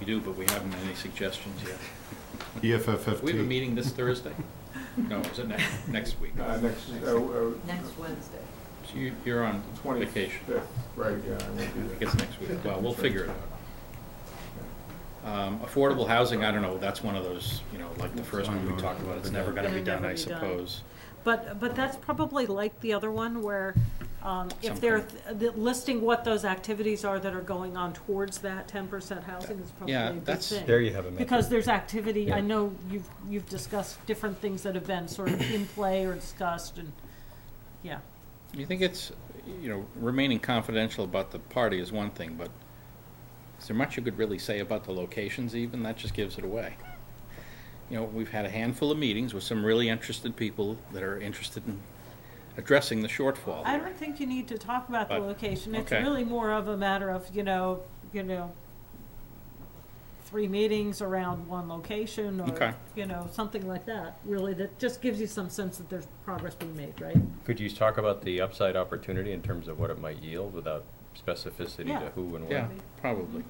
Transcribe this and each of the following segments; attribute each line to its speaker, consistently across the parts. Speaker 1: We do, but we haven't any suggestions yet.
Speaker 2: EFFFT.
Speaker 1: We have a meeting this Thursday? No, is it next, next week?
Speaker 3: Uh, next,
Speaker 4: Next-
Speaker 3: uh, uh.
Speaker 4: Next Wednesday.
Speaker 1: So you, you're on vacation.
Speaker 3: Twenty-fifth, right, yeah, I won't be
Speaker 1: I
Speaker 3: there.
Speaker 1: guess next week. Well, we'll figure it out. Um, affordable housing, I don't know, that's one of those, you know, like the first one we talked about, it's never gonna be
Speaker 5: It'll
Speaker 1: done, I
Speaker 5: never be done.
Speaker 1: suppose.
Speaker 5: But, but that's probably like the other one where um, if they're
Speaker 1: Something.
Speaker 5: th- listing what those activities are that are going on towards that ten percent housing is probably
Speaker 1: Yeah,
Speaker 5: a good
Speaker 1: that's-
Speaker 5: thing.
Speaker 6: There you have a method.
Speaker 5: Because there's activity, I
Speaker 6: Yeah.
Speaker 5: know you've, you've discussed different things that have been sort of in play or discussed and, yeah.
Speaker 1: You think it's, you know, remaining confidential about the party is one thing, but is there much you could really say about the locations even? That just gives it away. You know, we've had a handful of meetings with some really interested people that are interested in addressing the shortfall.
Speaker 5: I
Speaker 1: there.
Speaker 5: don't think you need to talk about the
Speaker 1: But-
Speaker 5: location. It's
Speaker 1: okay.
Speaker 5: really more of a matter of, you know, you know, three meetings around one location
Speaker 1: Okay.
Speaker 5: or, you know, something like that, really, that just gives you some sense that there's progress being made, right?
Speaker 6: Could you talk about the upside opportunity in terms of what it might yield without specificity
Speaker 5: Yeah.
Speaker 6: to who and when?
Speaker 1: Yeah, probably.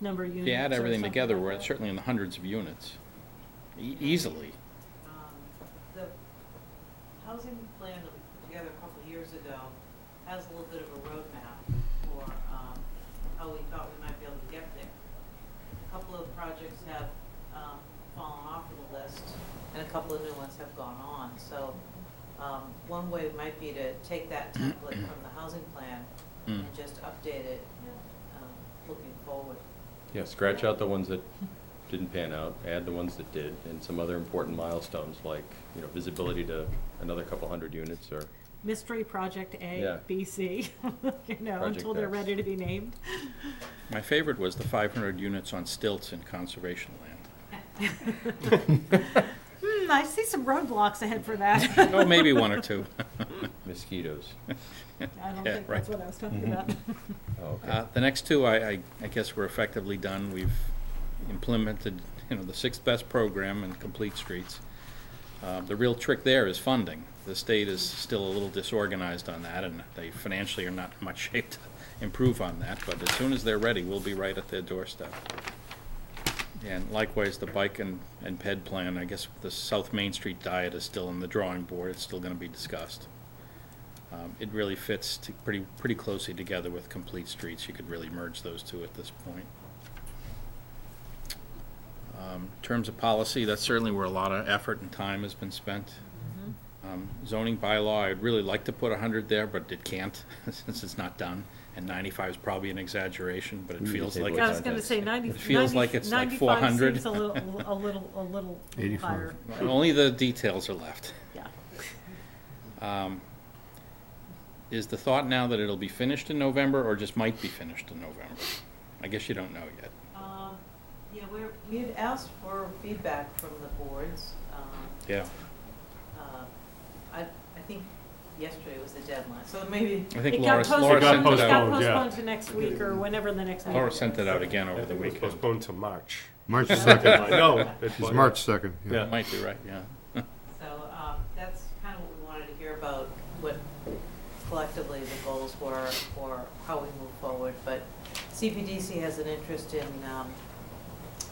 Speaker 5: Number of units.
Speaker 1: If you add
Speaker 5: or
Speaker 1: everything
Speaker 5: something
Speaker 1: together,
Speaker 5: like
Speaker 1: we're
Speaker 5: that.
Speaker 1: certainly in the hundreds of units, e- easily.
Speaker 4: Um, The housing plan that we put together a couple of years ago has a little bit of a roadmap for um, how we thought we might be able to get there. A couple of projects have um, fallen off of the list, and a couple of new ones have gone on. So um, one way might be to take that template from the housing plan
Speaker 1: Mm.
Speaker 4: and just update it, um, looking forward.
Speaker 6: Yeah, scratch out the ones that didn't pan out, add the ones that did, and some other important milestones like, you know, visibility to another couple hundred units or,
Speaker 5: Mystery Project
Speaker 6: Yeah.
Speaker 5: A, B, C, you know,
Speaker 6: Project
Speaker 5: until they're
Speaker 6: X.
Speaker 5: ready to be named.
Speaker 1: My favorite was the five hundred units on stilts in conservation land.
Speaker 5: Hmm, I see some roadblocks ahead for that.
Speaker 1: Oh, maybe one or two.
Speaker 6: mosquitoes.
Speaker 5: I don't
Speaker 1: Yeah,
Speaker 5: think
Speaker 1: right. Mm-hmm.
Speaker 5: that's what I was talking about.
Speaker 6: Oh, okay.
Speaker 1: Uh, The next two, I, I- I guess we're effectively done. We've implemented, you know, the sixth best program in Complete Streets. Uh, The real trick there is funding. The state is still a little disorganized on that, and they financially are not in much shape to improve on that, but as soon as they're ready, we'll be right at their doorstep. And likewise, the bike and, and ped plan, I guess the South Main Street diet is still in the drawing board, it's still gonna be discussed. Um, It really fits to pretty, pretty closely together with Complete Streets. You could really merge those two at this point. Um, in Terms of policy, that's certainly where a lot of effort and time has been spent. Um, Zoning bylaw, I'd really like to put 100 there, but it can't, since it's not done. And 95 is probably an exaggeration, but it
Speaker 6: We need to
Speaker 1: feels
Speaker 6: table
Speaker 1: like,
Speaker 6: it.
Speaker 5: I
Speaker 1: it's-
Speaker 5: was gonna say ninety,
Speaker 1: It feels like
Speaker 5: ninety,
Speaker 1: it's like
Speaker 5: ninety-five
Speaker 1: 400.
Speaker 5: seems a little, a little, a little
Speaker 2: 85.
Speaker 5: higher,
Speaker 1: only the details are left.
Speaker 5: yeah.
Speaker 1: Um, Is the thought now that it'll be finished in November, or just might be finished in November? I guess you don't know yet.
Speaker 4: Um, Yeah, we're, we've asked for feedback from the boards. Um,
Speaker 1: Yeah.
Speaker 4: uh, I, I think yesterday was the deadline, so maybe,
Speaker 1: I
Speaker 5: It
Speaker 1: think Laura,
Speaker 5: got
Speaker 1: Laura
Speaker 5: postponed,
Speaker 2: got
Speaker 1: sent it
Speaker 5: it got
Speaker 1: out.
Speaker 2: postponed, yeah.
Speaker 5: postponed to next week or whenever the next meeting
Speaker 1: Laura
Speaker 5: is.
Speaker 1: sent it out again over the
Speaker 3: It was
Speaker 1: weekend.
Speaker 3: Postponed to March.
Speaker 2: March 2nd.
Speaker 3: No.
Speaker 2: It's March 2nd, yeah.
Speaker 1: That might be right, yeah.
Speaker 4: so, um, that's kind of what we wanted to hear about, what collectively the goals were or how we move forward. But CPDC has an interest in, um,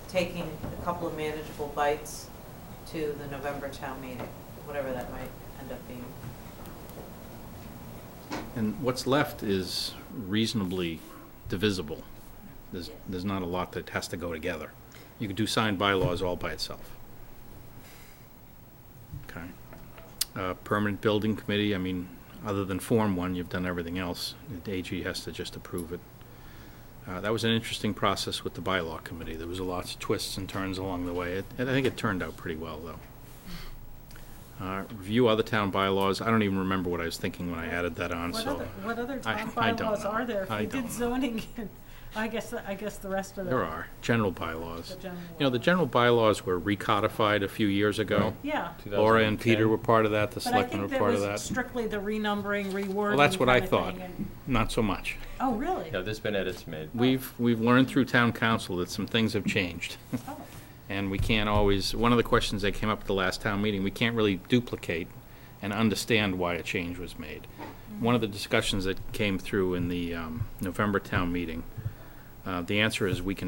Speaker 4: taking a couple of manageable bites to the November town meeting, whatever that might end up being.
Speaker 1: And what's left is reasonably divisible. There's, there's not a lot that has to go together. You could do signed bylaws all by itself. Okay. Uh, Permanent Building Committee, I mean, other than Form One, you've done everything else. The AG has to just approve it. Uh, That was an interesting process with the bylaw committee. There was lots of twists and turns along the way. It- And I think it turned out pretty well, though. Uh, Review other town bylaws. I don't even remember what I was thinking when I added that on,
Speaker 5: What
Speaker 1: so.
Speaker 5: other, what other
Speaker 1: I-
Speaker 5: town
Speaker 1: I don't
Speaker 5: bylaws
Speaker 1: know.
Speaker 5: are there?
Speaker 1: I
Speaker 5: If you
Speaker 1: don't know.
Speaker 5: did zoning, I guess, the- I guess the rest of the.
Speaker 1: There are, general bylaws.
Speaker 5: The general
Speaker 1: You know, the general bylaws were recodified a few years ago.
Speaker 5: Yeah,
Speaker 1: Laura and Peter were part of that, the
Speaker 5: but I
Speaker 1: selectmen
Speaker 5: think
Speaker 1: were
Speaker 5: that
Speaker 1: part of
Speaker 5: was
Speaker 1: that.
Speaker 5: strictly the renumbering, rewording.
Speaker 1: Well, that's what I
Speaker 5: kinda thing
Speaker 1: thought,
Speaker 5: and-
Speaker 1: not so much.
Speaker 5: Oh, really?
Speaker 6: Have this been edits made?
Speaker 1: We've, we've learned through town council that some things have changed.
Speaker 5: Oh.
Speaker 1: And we can't always, one of the questions that came up at the last town meeting, we can't really duplicate and understand why a change was made. One of the discussions that came through in the um, November town meeting, uh, the answer is we can